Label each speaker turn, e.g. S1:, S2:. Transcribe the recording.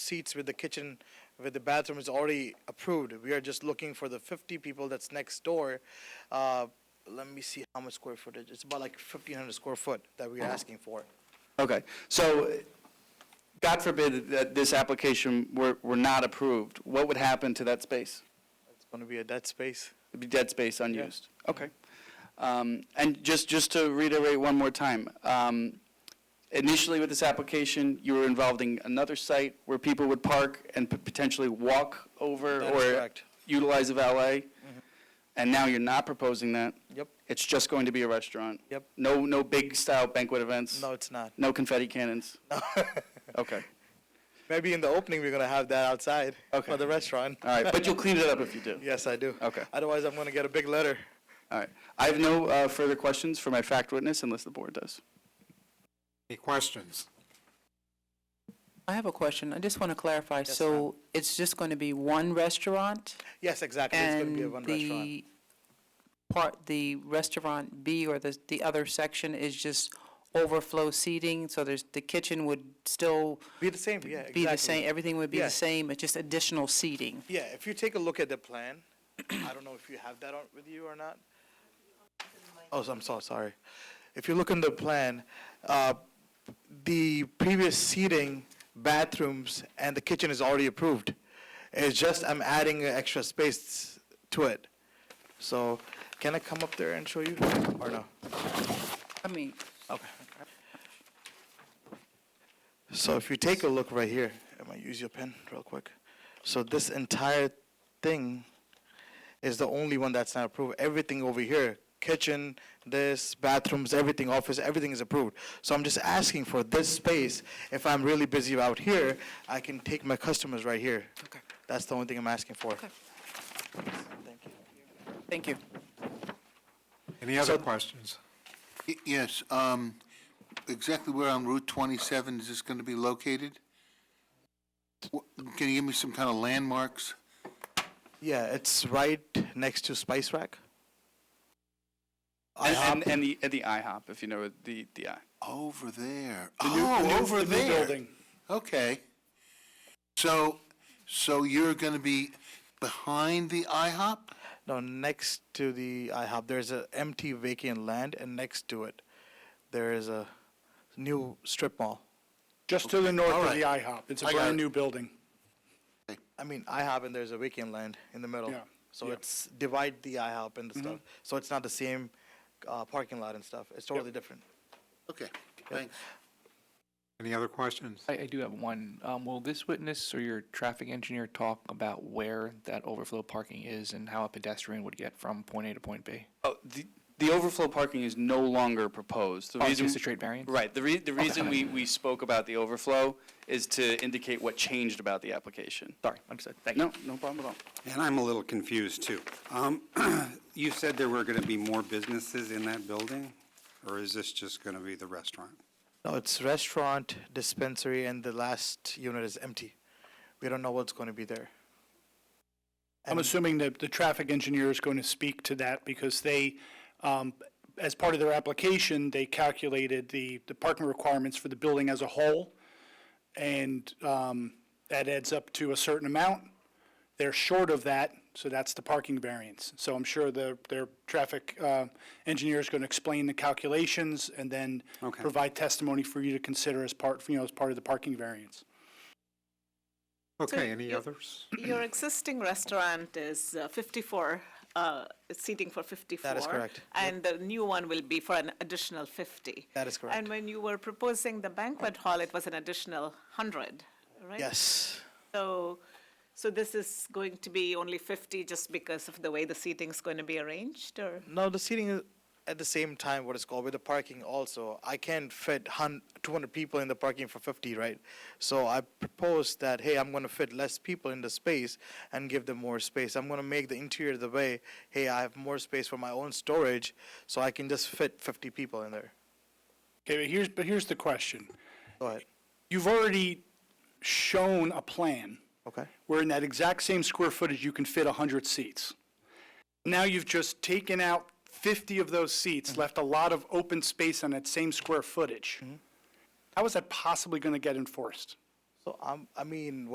S1: seats with the kitchen, with the bathroom is already approved. We are just looking for the 50 people that's next door. Uh, Let me see how much square footage. It's about like 1,500 square foot that
S2: Uh-huh.
S1: we are asking for.
S2: Okay, so God forbid that this application were, were not approved, what would happen to that space?
S1: It's going to be a dead space.
S2: It'd be dead space unused? Okay. Um, And just, just to reiterate one more time, um, initially with this application, you were involved in another site where people would park and p- potentially walk over
S1: That is
S2: or
S1: correct. Mm-hmm.
S2: utilize a valet? And now you're not proposing that?
S1: Yep.
S2: It's just going to be a restaurant?
S1: Yep.
S2: No, no big style banquet events?
S1: No, it's not.
S2: No confetti cannons? Okay.
S1: Maybe in the opening, we're going to have that outside
S2: Okay.
S1: for the restaurant.
S2: All right, but you'll clean it up if you do.
S1: Yes, I do.
S2: Okay.
S1: Otherwise, I'm going to get a big letter.
S2: All right. I have no uh, further questions for my fact witness unless the board does.
S3: Any questions?
S4: I have a question. I just want to clarify. So it's just going to be one restaurant?
S1: Yes, exactly. It's going to be a one restaurant.
S4: And the part, the restaurant B or the, the other section is just overflow seating? So there's, the kitchen would still
S1: Be the same, yeah, exactly.
S4: be the same, everything would be
S1: Yeah.
S4: the same, it's just additional seating?
S1: Yeah, if you take a look at the plan, I don't know if you have that on with you or not. Oh, so- I'm so sorry. If you look in the plan, uh, the previous seating, bathrooms, and the kitchen is already approved. It's just I'm adding an extra space to it. So can I come up there and show you or no?
S4: I mean,
S1: Okay. So if you take a look right here, I'm gonna use your pen real quick. So this entire thing is the only one that's not approved. Everything over here, kitchen, this, bathrooms, everything, office, everything is approved. So I'm just asking for this space. If I'm really busy out here, I can take my customers right here. Okay. That's the only thing I'm asking for. Thank you.
S4: thank you.
S3: Any other questions?
S5: Y- Yes, um, exactly where on Route 27 is this going to be located? Wh- Can you give me some kind of landmarks?
S1: Yeah, it's right next to Spice Rack.
S2: And, and, and, the, and the IHOP, if you know it, the, the I.
S5: Over there. Oh, over there. Okay. So, so you're going to be behind the IHOP?
S1: No, next to the IHOP, there's a empty vacant land, and next to it, there is a new strip mall.
S6: Just to the north
S5: All
S6: of the
S5: right.
S6: IHOP. It's a
S5: I got it.
S6: brand-new building.
S1: I mean, IHOP and there's a vacant land in the middle.
S6: Yeah, Mm-hmm.
S1: So it's divide the IHOP and the stuff. So it's not the same uh, parking lot and stuff. It's totally different.
S5: Okay, thanks.
S3: Any other questions?
S7: I, I do have one. Um, will this witness or your traffic engineer talk about where that overflow parking is and how a pedestrian would get from point A to point B?
S2: Oh, the, the overflow parking is no longer proposed. The
S7: Oh, it's
S2: reason,
S7: just a straight variance?
S2: Right. The, re, the reason we, we spoke about the overflow is to indicate what changed about the application.
S7: Sorry, understood. Thank you.
S2: No, no problem at all.
S8: And I'm a little confused, too. Um, You said there were going to be more businesses in that building, or is this just going to be the restaurant?
S1: No, it's restaurant, dispensary, and the last unit is empty. We don't know what's going to be there.
S6: I'm assuming that the traffic engineer is going to speak to that because they, um, as part of their application, they calculated the, the parking requirements for the building as a whole. And, um, that adds up to a certain amount. They're short of that, so that's the parking variance. So I'm sure the, their traffic, uh, engineer is going to explain the calculations and then
S8: Okay.
S6: provide testimony for you to consider as part, you know, as part of the parking variance.
S3: Okay, any
S9: you-
S3: others?
S9: Your existing restaurant is uh, 54, uh, it's seating for 54.
S1: correct.
S9: And the new one will be for an additional 50.
S1: That is correct.
S9: And when you were proposing the banquet hall, it was an additional 100, right?
S1: Yes.
S9: So, so this is going to be only 50 just because of the way the seating's going to be arranged, or?
S1: No, the seating is at the same time what it's called with the parking also. I can't fit hun- 200 people in the parking for 50, right? So I proposed that hey, I'm going to fit less people in the space and give them more space. I'm going to make the interior the way hey, I have more space for my own storage, so I can just fit 50 people in there.
S6: Okay, but here's, but here's the question.
S1: Go ahead.
S6: You've already shown a plan
S1: Okay.
S6: where in that exact same square footage, you can fit 100 seats. Now you've just taken out 50 of those seats, left a lot of open space on that same square footage. How is that possibly going to get enforced?
S1: So I'm, I mean,